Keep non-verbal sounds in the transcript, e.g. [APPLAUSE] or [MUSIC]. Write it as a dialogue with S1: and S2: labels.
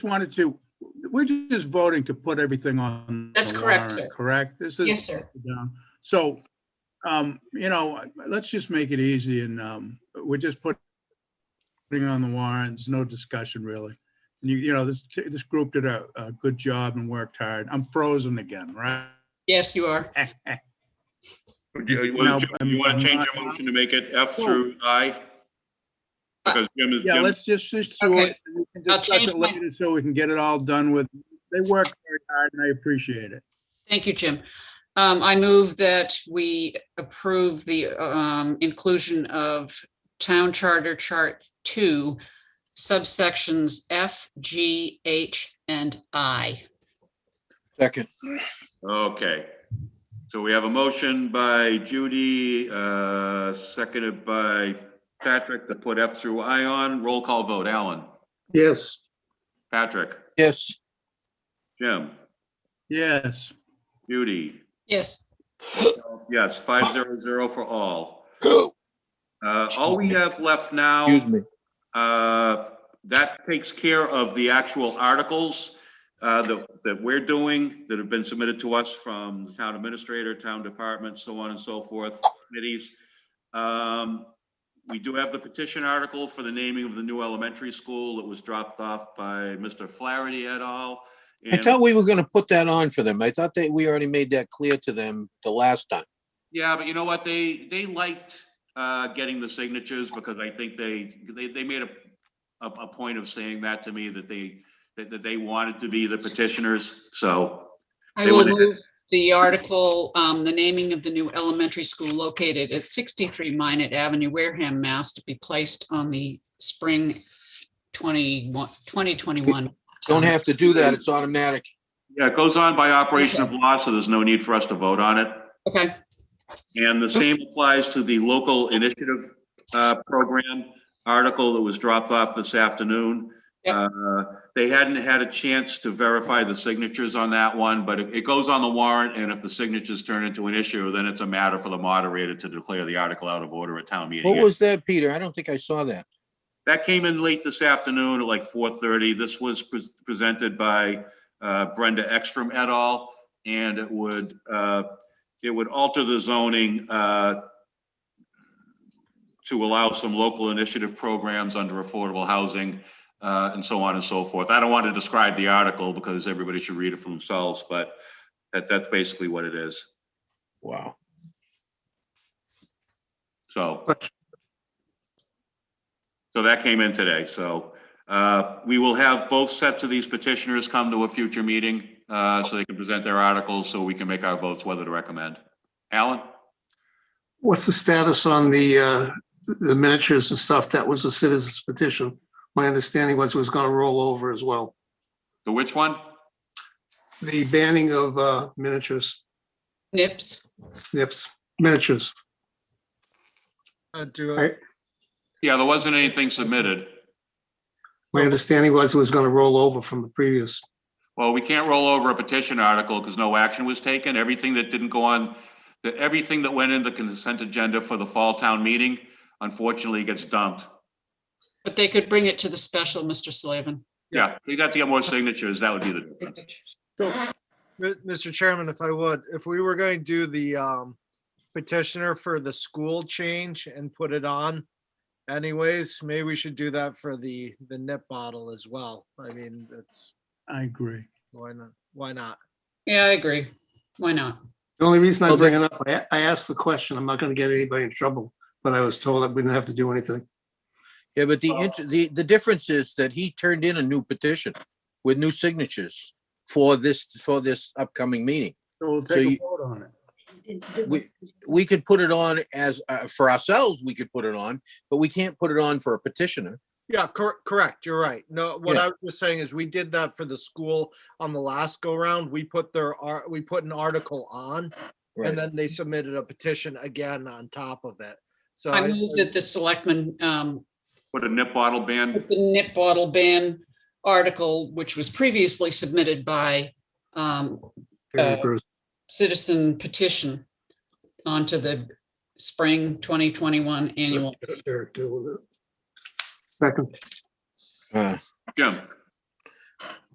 S1: wanted to, we're just voting to put everything on.
S2: That's
S1: the
S2: correct,
S1: warrant,
S2: sir.
S1: Correct? This is.
S2: Yes, sir.
S1: down. So, um, you know, let's just make it easy and, um, we're just put- putting it on the warrant. There's no discussion really. And You, you know, this, this group did a, a good job and worked hard. I'm frozen again, right? [LAUGHS]
S2: Yes, you are.
S3: Do you
S1: No,
S3: want
S1: I'm- I'm
S3: to change
S1: not-
S3: your motion to make it F
S1: Well- Uh,
S3: through I? Because Jim is,
S1: Yeah,
S3: Jim,
S1: let's just, just do
S2: Okay.
S1: it. and we can
S2: I'll
S1: discuss
S2: change
S1: it
S2: my-
S1: later so we can get it all done with. They worked very hard and I appreciate it.
S2: Thank you, Jim. Um, I move that we approve the, um, inclusion of Town Charter Chart Two, subsections F, G, H, and I.
S4: Second,
S3: okay. So we have a motion by Judy, uh, seconded by Patrick to put F through I on. Roll call vote. Alan?
S5: yes,
S3: Patrick?
S4: yes,
S3: Jim?
S1: Yes,
S3: Judy?
S2: Yes.
S3: Yes, five zero zero for all. Uh, all we have left now.
S4: excuse me.
S3: Uh, That takes care of the actual articles uh, that, that we're doing, that have been submitted to us from the town administrator, town department, so on and so forth, committees. Um, We do have the petition article for the naming of the new elementary school that was dropped off by Mr. Flaherty et al.
S4: I
S3: And-
S4: thought we were gonna put that on for them. I thought that we already made that clear to them the last time.
S3: Yeah, but you know what? They, they liked uh, getting the signatures because I think they, they, they made a, a, a point of saying that to me, that they, that, that they wanted to be the petitioners, so.
S2: I
S3: They
S2: will
S3: would've-
S2: move the article, um, the naming of the new elementary school located at sixty-three Minot Avenue, Wareham, Mass. to be placed on the spring 21 2021.
S4: Don't have to do that. It's automatic.
S3: Yeah, it goes on by operation of law, so there's no need for us to vote on it.
S2: Okay,
S3: And the same applies to the local initiative uh, program article that was dropped off this afternoon.
S2: Yep.
S3: Uh, They hadn't had a chance to verify the signatures on that one, but it it goes on the warrant, and if the signatures turn into an issue, then it's a matter for the moderator to declare the article out of order at town
S4: What
S3: meeting.
S4: was that, Peter? I don't think I saw that.
S3: That came in late this afternoon at like 4:30. This was pres- presented by uh, Brenda Ekstrom et al. And it would, uh, it would alter the zoning uh, to allow some local initiative programs under affordable housing uh, and so on and so forth. I don't want to describe the article because everybody should read it for themselves, but that, that's basically what it is.
S4: Wow.
S3: So. So that came in today, so uh, we will have both sets of these petitioners come to a future meeting uh, so they can present their articles, so we can make our votes whether to recommend. Alan?
S5: what's the status on the, uh, the miniatures and stuff, that was a citizen's petition? My understanding was it was gonna roll over as well,
S3: The which one?
S5: the banning of, uh, miniatures,
S2: nips.
S5: nips, miniatures.
S6: Uh, Do,
S5: I-
S6: I-
S3: Yeah, there wasn't anything submitted.
S5: My understanding was it was gonna roll over from the previous,
S3: Well, we can't roll over a petition article because no action was taken. Everything that didn't go on, that everything that went in the consent agenda for the fall town meeting unfortunately gets dumped.
S2: But they could bring it to the special, Mr. Slavin.
S3: Yeah, we'd have to get more signatures. That would be the difference.
S6: Mi- Mr. Chairman, if I would, if we were going to do the um, petitioner for the school change and put it on anyways, maybe we should do that for the, the nip bottle as well. I mean, that's,
S1: I agree.
S6: why not? Why not?
S2: Yeah, I agree. Why not?
S5: the only reason I
S4: Well,
S5: bring it up, I, I asked the question, I'm not gonna get anybody in trouble, but I was told that we didn't have to do anything.
S4: Yeah, but the, int- the, the difference is that he turned in a new petition with new signatures for this, for this upcoming meeting.
S1: So we'll
S4: So
S1: take a
S4: you-
S1: vote on it.
S4: We, we could put it on as, uh, for ourselves, we could put it on, but we can't put it on for a petitioner.
S6: Yeah, cor- correct. You're right. No, what
S4: Yeah.
S6: I was just saying is we did that for the school on the last go round. We put their, ar- we put an article on
S4: Right.
S6: and then they submitted a petition again on top of it. So.
S2: I
S6: I-
S2: move that the selectmen, um,
S3: Put a nip bottle ban.
S2: put the nip bottle ban article, which was previously submitted by, um, Uh,
S5: Bruce.
S2: citizen petition onto the spring twenty twenty-one annual.
S5: Eric, deal with it. Second,
S4: Uh,
S3: Jim?